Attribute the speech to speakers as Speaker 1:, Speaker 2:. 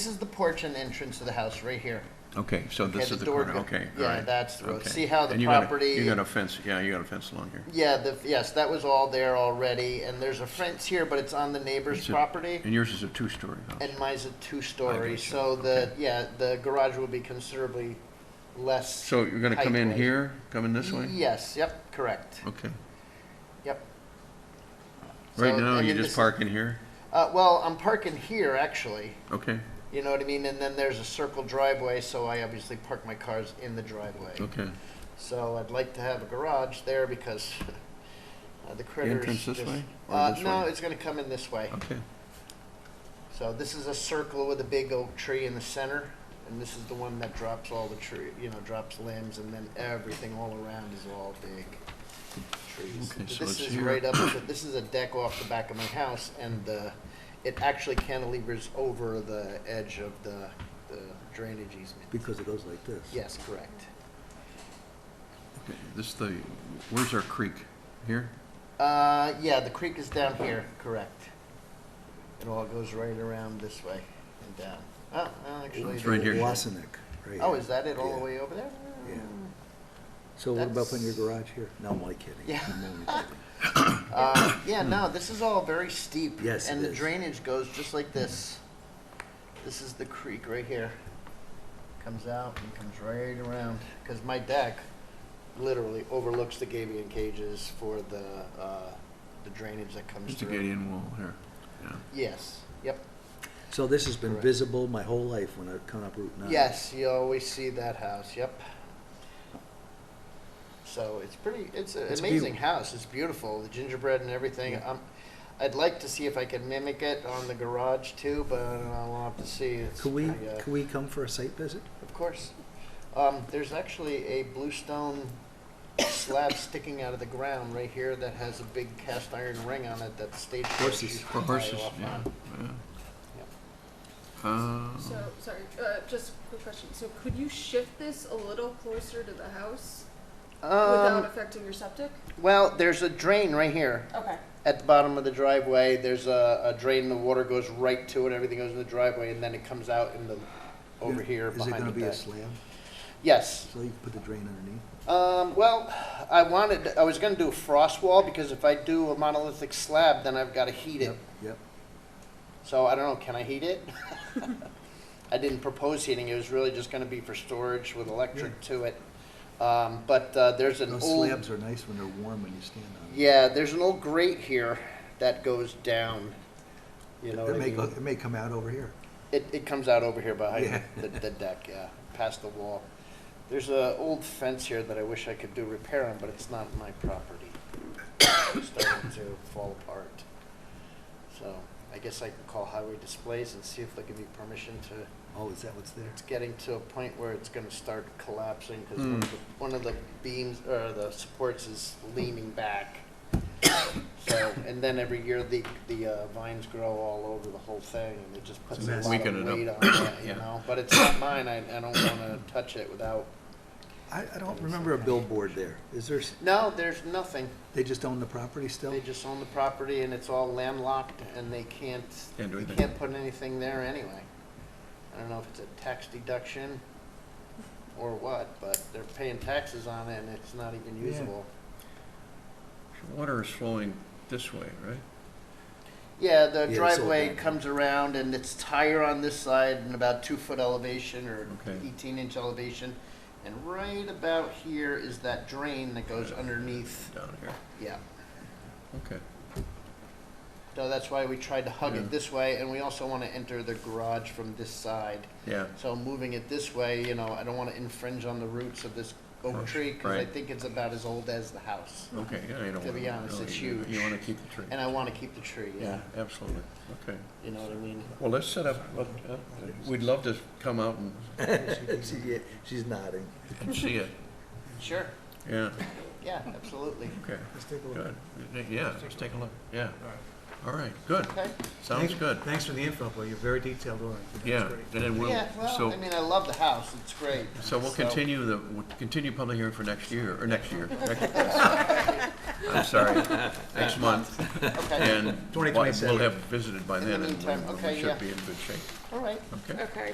Speaker 1: This is the porch and entrance to the house right here.
Speaker 2: Okay, so
Speaker 1: Okay,
Speaker 2: this
Speaker 1: the
Speaker 2: is the
Speaker 1: door
Speaker 2: corner,
Speaker 1: go-
Speaker 2: okay, all
Speaker 1: yeah,
Speaker 2: right.
Speaker 1: that's the road.
Speaker 2: okay.
Speaker 1: See how the
Speaker 2: And you got a-
Speaker 1: property-
Speaker 2: You got a fence, yeah, you got a fence along here.
Speaker 1: Yeah, the, yes, that was all there already, and there's a fence here, but it's on the neighbor's
Speaker 2: It's a-
Speaker 1: property.
Speaker 2: And yours is a two-story house.
Speaker 1: And mine's a two-story,
Speaker 2: gotcha,
Speaker 1: so the, yeah, the garage will be considerably less.
Speaker 2: So you're gonna come in
Speaker 1: height-wise.
Speaker 2: here, come in this way?
Speaker 1: Yes, yep, correct,
Speaker 2: Okay.
Speaker 1: yep.
Speaker 2: Right
Speaker 1: So,
Speaker 2: now,
Speaker 1: I
Speaker 2: you
Speaker 1: mean,
Speaker 2: just
Speaker 1: this-
Speaker 2: park in here?
Speaker 1: Uh, well, I'm parking here, actually,
Speaker 2: Okay,
Speaker 1: you know what I mean, and then there's a circle driveway, so I obviously park my cars in the driveway.
Speaker 2: okay.
Speaker 1: So I'd like to have a garage there because uh, the critters.
Speaker 2: entrance this
Speaker 1: just-
Speaker 2: way or
Speaker 1: Uh,
Speaker 2: this
Speaker 1: no,
Speaker 2: way?
Speaker 1: it's gonna come in this way.
Speaker 2: Okay,
Speaker 1: So this is a circle with a big oak tree in the center, and this is the one that drops all the tree, you know, drops limbs, and then everything all around is all big trees.
Speaker 2: Okay, so
Speaker 1: This
Speaker 2: it's
Speaker 1: is
Speaker 2: here.
Speaker 1: right up, to- this is a deck off the back of my house, and uh, it actually cantilevers over the edge of the the drainage easement.
Speaker 3: Because it goes like this.
Speaker 1: Yes, correct.
Speaker 2: okay. This is the, where's our creek? Here?
Speaker 1: Uh, yeah, the creek is down here, correct. It all goes right around this way and down. Oh, well, actually.
Speaker 2: It's right here.
Speaker 3: Wasenick, right
Speaker 1: Oh,
Speaker 3: here.
Speaker 1: is that it all the
Speaker 3: Yeah.
Speaker 1: way over there?
Speaker 3: Yeah. So what about putting your garage here? No, I'm only kidding.
Speaker 1: Yeah.
Speaker 3: I'm only kidding.
Speaker 1: Uh, yeah, no, this is all very steep.
Speaker 3: Yes, it
Speaker 1: And the
Speaker 3: is.
Speaker 1: drainage goes just like this. This is the creek right here. Comes out and comes right around, because my deck literally overlooks the gabion cages for the, uh, the drainage that comes
Speaker 2: Just a
Speaker 1: through.
Speaker 2: gate-in wall here, yeah.
Speaker 1: Yes, yep.
Speaker 3: So this has been
Speaker 1: Correct.
Speaker 3: visible my whole life when I've come up Route 9.
Speaker 1: Yes, you always see that house, yep. So it's pretty, it's an
Speaker 3: It's
Speaker 1: amazing
Speaker 3: beautiful.
Speaker 1: house, it's beautiful, the gingerbread and everything.
Speaker 3: Yeah.
Speaker 1: Um, I'd like to see if I can mimic it on the garage too, but I'll have to see. It's
Speaker 3: Could we,
Speaker 1: pretty, uh,
Speaker 3: could we come for a site visit?
Speaker 1: Of course. Um, there's actually a bluestone slab sticking out of the ground right here that has a big cast iron ring on it that the state.
Speaker 3: Horses.
Speaker 1: used to
Speaker 2: For
Speaker 1: tie
Speaker 2: horses,
Speaker 1: off
Speaker 2: yeah,
Speaker 1: on.
Speaker 2: yeah. Uh,
Speaker 4: So, sorry, uh, just a quick question. So could you shift this a little closer to the house
Speaker 1: Um,
Speaker 4: without affecting your septic?
Speaker 1: well, there's a drain right here.
Speaker 4: Okay.
Speaker 1: at the bottom of the driveway, there's a, a drain, the water goes right to it, everything goes in the driveway, and then it comes out in the, over here
Speaker 3: Is it
Speaker 1: behind
Speaker 3: gonna
Speaker 1: the
Speaker 3: be a
Speaker 1: deck.
Speaker 3: slab?
Speaker 1: Yes,
Speaker 3: So you can put the drain underneath?
Speaker 1: um, well, I wanted, I was gonna do a frost wall, because if I do a monolithic slab, then I've gotta heat it.
Speaker 3: Yep, Yep.
Speaker 1: So I don't know, can I heat it? I didn't propose heating, it was really just gonna be for storage with electric to it. Um, but, uh, there's an
Speaker 3: Those
Speaker 1: old.
Speaker 3: slabs are nice when they're warm when you stand on them.
Speaker 1: Yeah, there's an old grate here that goes down, you know what I
Speaker 3: It may,
Speaker 1: mean?
Speaker 3: go- it may come out over here.
Speaker 1: It, it comes out over here behind
Speaker 3: Yeah.
Speaker 1: the, the deck, yeah, past the wall. There's a old fence here that I wish I could do repair on, but it's not my property. It's starting to fall apart. So I guess I can call highway displays and see if they'll give me permission to,
Speaker 3: Oh, is that what's there?
Speaker 1: it's getting to a point where it's gonna start collapsing because
Speaker 2: Hmm.
Speaker 1: one of the beams, or the supports is leaning back. So, and then every year the, the uh, vines grow all over the whole thing and it just puts
Speaker 3: It's
Speaker 1: a
Speaker 3: a
Speaker 1: lot
Speaker 3: mess.
Speaker 1: of
Speaker 2: Weaken it up.
Speaker 1: weight on it, you
Speaker 2: Yeah.
Speaker 1: know? But it's not mine, I, I don't wanna touch it without,
Speaker 3: I, I don't remember a billboard there. Is there, s-
Speaker 1: no, there's nothing.
Speaker 3: they just own the property still?
Speaker 1: They just own the property and it's all landlocked and they can't,
Speaker 2: Can't do
Speaker 1: they
Speaker 2: anything.
Speaker 1: can't put anything there anyway. I don't know if it's a tax deduction or what, but they're paying taxes on it and it's not even
Speaker 3: Yeah.
Speaker 1: usable.
Speaker 2: Water is flowing this way, right?
Speaker 1: Yeah, the
Speaker 3: it's all
Speaker 1: driveway
Speaker 3: back.
Speaker 1: comes around and it's higher on this side and about two foot elevation or
Speaker 2: Okay.
Speaker 1: eighteen inch elevation. And right about here is that drain that goes underneath,
Speaker 2: Down here,
Speaker 1: yeah.
Speaker 2: okay.
Speaker 1: So that's why we tried to hug
Speaker 2: Yeah.
Speaker 1: it this way, and we also want to enter the garage from this side.
Speaker 2: Yeah,
Speaker 1: So moving it this way, you know, I don't want to infringe on the roots of this
Speaker 2: Oh,
Speaker 1: oak tree, because I
Speaker 2: right.
Speaker 1: think it's about as old as the house.
Speaker 2: okay, yeah, you don't want
Speaker 1: To be honest, it's huge.
Speaker 2: You wanna keep the tree.
Speaker 1: And I want to keep the tree, yeah,
Speaker 2: Yeah, absolutely, okay.
Speaker 1: you know what I mean?
Speaker 2: Well, let's set up, let- uh, we'd love to come out and
Speaker 3: She- yeah, She's nodding.
Speaker 2: and see it.
Speaker 1: Sure,
Speaker 2: Yeah,
Speaker 1: yeah, absolutely.
Speaker 2: okay,
Speaker 3: Let's take a look.
Speaker 2: good. Yeah, let's take a look, yeah. All right, good,
Speaker 1: Okay,
Speaker 2: sounds
Speaker 5: Thank-
Speaker 2: good.
Speaker 5: Thanks for the info, Bill. You're very detailed oriented. That's
Speaker 2: Yeah,
Speaker 5: great.
Speaker 2: and then we'll,
Speaker 1: yeah, well,
Speaker 2: so,
Speaker 1: I mean, I love the house, it's great.
Speaker 2: so we'll continue the, we'll continue public hearing for next year, or next year. next- I'm sorry, next month,
Speaker 1: Okay,
Speaker 2: and we'll
Speaker 5: 2027.
Speaker 2: have visited by
Speaker 1: In the
Speaker 2: then, and
Speaker 1: meantime,
Speaker 2: we- we
Speaker 1: okay, yeah.
Speaker 2: should be in good shape,
Speaker 1: all right.
Speaker 2: okay?
Speaker 4: Okay.